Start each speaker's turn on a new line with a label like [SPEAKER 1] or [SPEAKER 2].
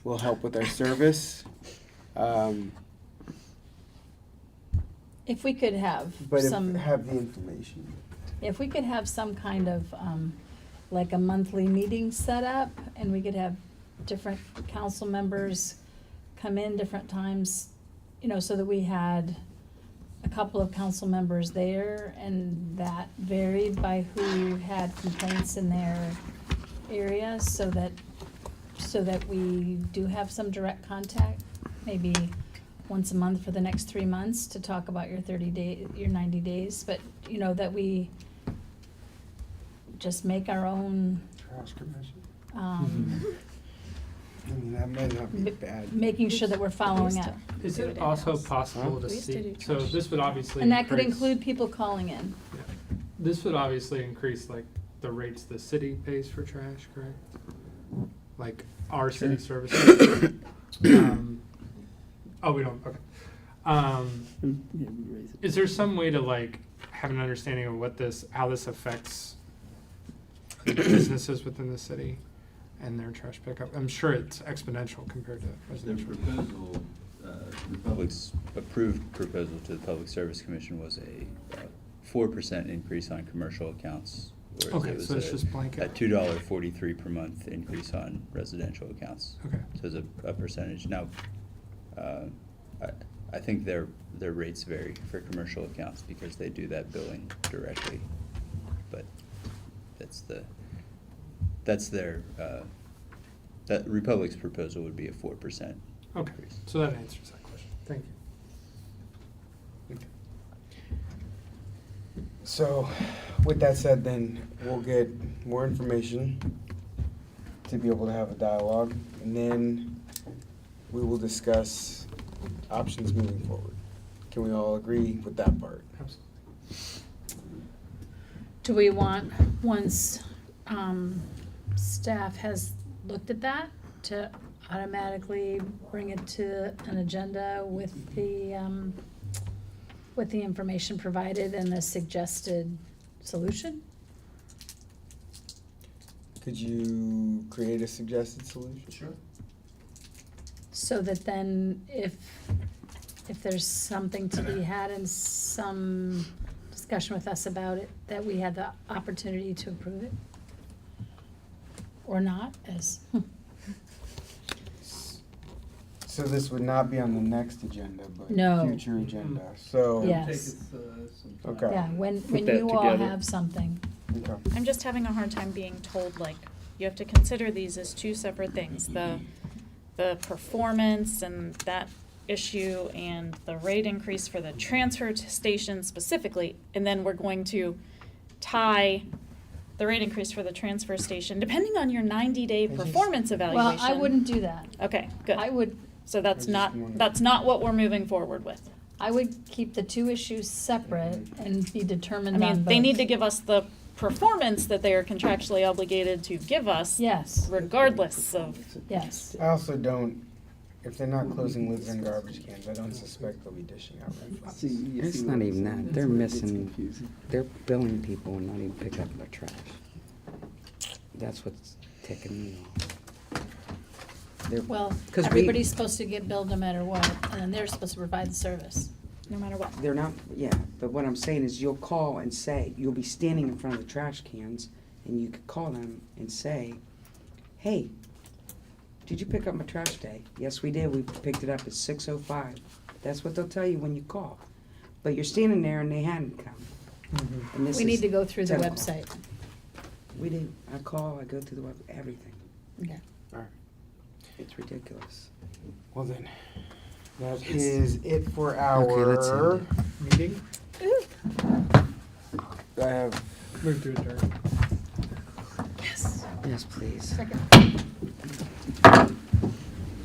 [SPEAKER 1] will help with our service. Um,
[SPEAKER 2] If we could have
[SPEAKER 1] But if,
[SPEAKER 2] some,
[SPEAKER 1] have the information.
[SPEAKER 2] if we could have some kind of, um, like a monthly meeting set up, and we could have different council members come in different times, you know, so that we had a couple of council members there, and that varied by who had complaints in their area, so that, so that we do have some direct contact, maybe once a month for the next three months to talk about your thirty day, your ninety days, but, you know, that we just make our own,
[SPEAKER 1] Trash commission.
[SPEAKER 2] um,
[SPEAKER 1] I mean, that might not be
[SPEAKER 2] Ma-
[SPEAKER 1] bad.
[SPEAKER 2] making sure that we're following up.
[SPEAKER 3] Is
[SPEAKER 4] Do
[SPEAKER 3] it
[SPEAKER 4] it
[SPEAKER 3] also
[SPEAKER 4] in-house.
[SPEAKER 3] possible
[SPEAKER 1] Huh?
[SPEAKER 3] to
[SPEAKER 4] We used to
[SPEAKER 3] see,
[SPEAKER 4] do
[SPEAKER 3] so
[SPEAKER 4] trash.
[SPEAKER 3] this would obviously.
[SPEAKER 2] And that could
[SPEAKER 3] increase-
[SPEAKER 2] include people calling in.
[SPEAKER 3] yeah. This would obviously increase like the rates the city pays for trash, correct? Like our city services. Um, Oh, we don't, okay. Um, Is there some way to like have an understanding of what this, how this affects the businesses within the city and their trash pickup? I'm sure it's exponential compared to
[SPEAKER 5] Their
[SPEAKER 3] residential.
[SPEAKER 5] proposal, uh, the public's approved proposal to the Public Service Commission was a uh, four percent increase on commercial accounts. whereas
[SPEAKER 3] Okay,
[SPEAKER 5] it was
[SPEAKER 3] so it's
[SPEAKER 5] a-
[SPEAKER 3] just blanket.
[SPEAKER 5] A two dollar forty-three per month increase on residential accounts.
[SPEAKER 3] Okay.
[SPEAKER 5] So it's a, a percentage. Now, uh, I, I think their, their rates vary for commercial accounts because they do that billing directly. But that's the, that's their, uh, that Republic's proposal would be a four percent
[SPEAKER 3] Okay,
[SPEAKER 5] increase.
[SPEAKER 3] so that answers that question. Thank you.
[SPEAKER 1] So, with that said, then we'll get more information to be able to have a dialogue, and then we will discuss options moving forward. Can we all agree with that part?
[SPEAKER 3] Absolutely.
[SPEAKER 2] Do we want, once, um, staff has looked at that, to automatically bring it to an agenda with the, um, with the information provided and the suggested solution?
[SPEAKER 1] Could you create a suggested solution?
[SPEAKER 5] Sure.
[SPEAKER 2] So that then if, if there's something to be had and some discussion with us about it, that we had the opportunity to approve it? Or not, as, hmm.
[SPEAKER 1] So this would not be on the next agenda, but
[SPEAKER 2] No.
[SPEAKER 1] future agenda, so.
[SPEAKER 2] Yeah. Yes.
[SPEAKER 5] Take us, uh, some time.
[SPEAKER 1] Okay.
[SPEAKER 2] yeah, when, when
[SPEAKER 6] that
[SPEAKER 2] you all
[SPEAKER 6] together.
[SPEAKER 2] have something.
[SPEAKER 1] Okay.
[SPEAKER 4] I'm just having a hard time being told, like, you have to consider these as two separate things, the, the performance and that issue and the rate increase for the transfer t- station specifically, and then we're going to tie the rate increase for the transfer station, depending on your ninety-day
[SPEAKER 1] I just-
[SPEAKER 4] performance
[SPEAKER 2] Well,
[SPEAKER 4] evaluation.
[SPEAKER 2] I wouldn't do that.
[SPEAKER 4] Okay, good.
[SPEAKER 2] I would,
[SPEAKER 4] So
[SPEAKER 1] I
[SPEAKER 4] that's
[SPEAKER 1] just
[SPEAKER 4] not,
[SPEAKER 1] wanted-
[SPEAKER 4] that's not what we're moving forward with.
[SPEAKER 2] I would keep the two issues separate and be
[SPEAKER 4] I
[SPEAKER 2] determined on
[SPEAKER 4] mean, they
[SPEAKER 2] both.
[SPEAKER 4] need to give us the performance that they are contractually obligated to give us.
[SPEAKER 2] Yes,
[SPEAKER 4] regardless of.
[SPEAKER 2] yes.
[SPEAKER 1] I also don't, if they're not closing lids and garbage cans, I don't suspect they'll be dishing out red flags.
[SPEAKER 7] It's not even that, they're missing, they're billing people and not even picking up their trash. That's what's ticking me off. They're-
[SPEAKER 2] Well,
[SPEAKER 7] 'Cause we-
[SPEAKER 2] everybody's supposed to get billed no matter what, and then they're supposed to provide the service.
[SPEAKER 4] No matter what.
[SPEAKER 7] They're not, yeah, but what I'm saying is you'll call and say, you'll be standing in front of the trash cans and you could call them and say, hey, did you pick up my trash today? Yes, we did, we picked it up at six oh five. That's what they'll tell you when you call. But you're standing there and they hadn't come. And this
[SPEAKER 2] We need
[SPEAKER 7] is-
[SPEAKER 2] to go through the
[SPEAKER 7] Ten.
[SPEAKER 2] website.
[SPEAKER 7] We do. I call, I go through the web, everything.
[SPEAKER 2] Okay.
[SPEAKER 1] Alright,
[SPEAKER 7] It's ridiculous.
[SPEAKER 1] well then, that is it for
[SPEAKER 7] Okay, let's end
[SPEAKER 1] our,
[SPEAKER 3] Mm-hmm. Meeting,
[SPEAKER 1] I have
[SPEAKER 3] move to adjourn.
[SPEAKER 4] Yes.
[SPEAKER 7] Yes, please.
[SPEAKER 2] Second.